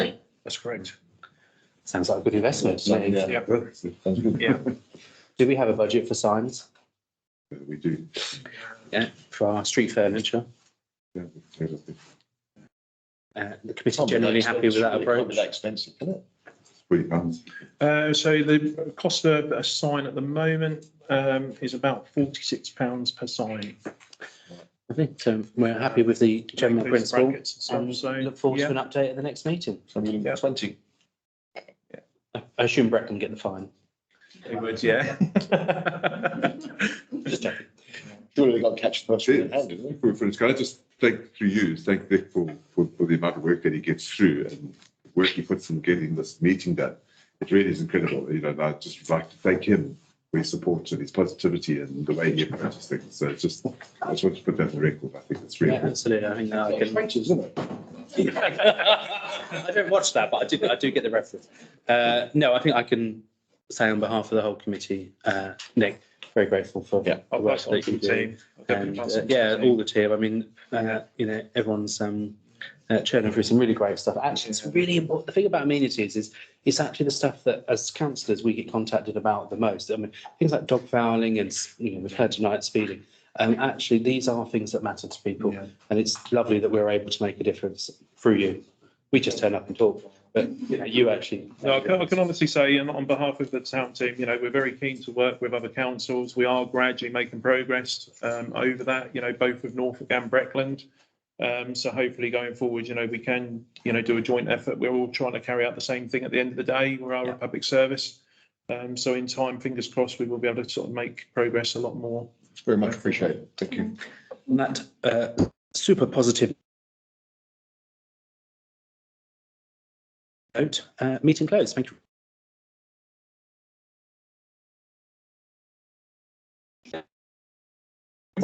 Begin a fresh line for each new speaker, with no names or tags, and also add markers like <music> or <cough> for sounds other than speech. That's correct.
Sounds like a good investment to me.
Yeah.
Sounds good.
Yeah.
<laughs> Do we have a budget for signs
We do.
for our street furniture?
yeah,
Uh, the committee generally happy with that approach.
expensive, isn't it?
Three pounds.
Uh, so the cost of a sign at the moment, um, is about forty-six pounds per sign.
I think um, we're happy with the general
Includes
principle.
brackets and stuff,
And
so,
Oh, um, look forward
yeah.
to an update at the next meeting.
Yeah.
Twenty.
I I assume Brett can get the fine.
They would, <laughs> yeah.
Just checking. Surely they got to catch the first one in hand, didn't
For, for, can I just thank through you, thank Vic for, for, for the amount of work that he gets through and the work he puts in getting this meeting done. It really is incredible, you know, and I'd just like to thank him for his support and his positivity and the way he approaches things. So it's just, I just want to put that on the record. I think it's really
Yeah, absolutely. I think that I
it?
can.
French, isn't it?
I don't watch that, but I do, I do get the reference. Uh, no, I think I can say on behalf of the whole committee, uh, Nick, very grateful for.
Yeah.
the
I'll
work
pass on
that
to
you
the
do.
team. I'll definitely
And,
pass
uh,
on to the
yeah,
team.
all the team. I mean, uh, you know, everyone's um, uh, churning through some really great stuff. Actually, it's really important. The thing about amenities is it's actually the stuff that, as councillors, we get contacted about the most. I mean, things like dog fouling and you know, we've heard tonight speeding. Um, actually, these are things that matter to people,
Yeah.
and it's lovely that we're able to make a difference through you. We just turn up and talk, but you, know, you actually.
No, I can, I can honestly say, and on behalf of the town team, you know, we're very keen to work with other councils. We are gradually making progress um, over that, you know, both with Norfolk and Breckland. Um, so hopefully going forward, you know, we can, you know, do a joint effort. We're all trying to carry out the same thing at the end of the day. We are
Yeah.
a public service. Um, so in time, fingers crossed, we will be able to sort of make progress a lot more.
Very much appreciated. Thank you.
On that uh, super positive note, uh, meeting closed. Thank you.